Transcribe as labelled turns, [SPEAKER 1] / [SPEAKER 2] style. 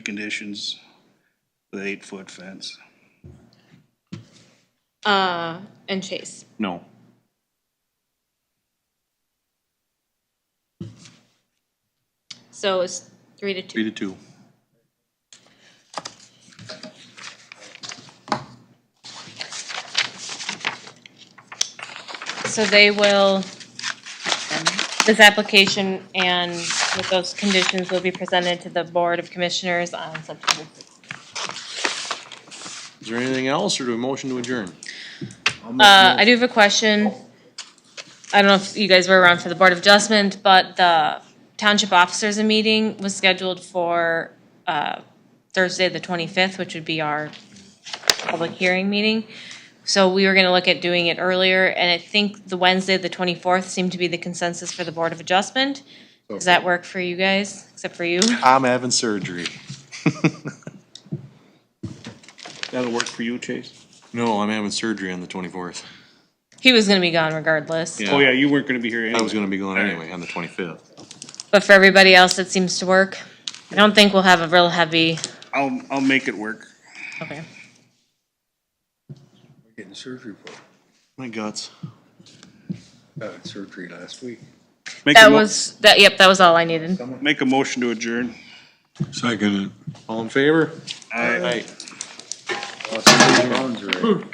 [SPEAKER 1] conditions, the eight-foot fence.
[SPEAKER 2] Uh, and Chase.
[SPEAKER 3] No.
[SPEAKER 2] So it's three to
[SPEAKER 3] Three
[SPEAKER 2] two.
[SPEAKER 3] to two.
[SPEAKER 2] So they will, this application and with those conditions will be presented to the Board of Commissioners on September 6th.
[SPEAKER 3] Is there anything else, or do we motion to adjourn?
[SPEAKER 2] Uh, I do have a question. I don't know if you guys were around for the Board of Adjustment, but the Township Officers' Meeting was scheduled for, uh, Thursday, the twenty-fifth, which would be our public hearing meeting. So we were gonna look at doing it earlier, and I think the Wednesday, the twenty-fourth, seemed to be the consensus for the Board of Adjustment. Does that work for you guys, except for you?
[SPEAKER 3] I'm having surgery.
[SPEAKER 1] That'll work for you, Chase?
[SPEAKER 3] No, I'm having surgery on the twenty-fourth.
[SPEAKER 2] He was gonna be gone regardless.
[SPEAKER 3] Yeah.
[SPEAKER 1] Oh, yeah, you weren't gonna be here
[SPEAKER 3] I
[SPEAKER 1] anyway.
[SPEAKER 3] was gonna be going anyway on the twenty-fifth.
[SPEAKER 2] But for everybody else, it seems to work. I don't think we'll have a real heavy,
[SPEAKER 1] I'll, I'll make it work.
[SPEAKER 2] okay.
[SPEAKER 4] Getting surgery for,
[SPEAKER 3] My guts.
[SPEAKER 4] it. had surgery last week.
[SPEAKER 1] Make a
[SPEAKER 2] That
[SPEAKER 1] mo-
[SPEAKER 2] was, that, yep, that was all I needed.
[SPEAKER 1] Make a motion to adjourn.
[SPEAKER 4] Second.
[SPEAKER 3] All in favor?
[SPEAKER 1] Aye.
[SPEAKER 3] Aye.
[SPEAKER 4] Lost three rounds already.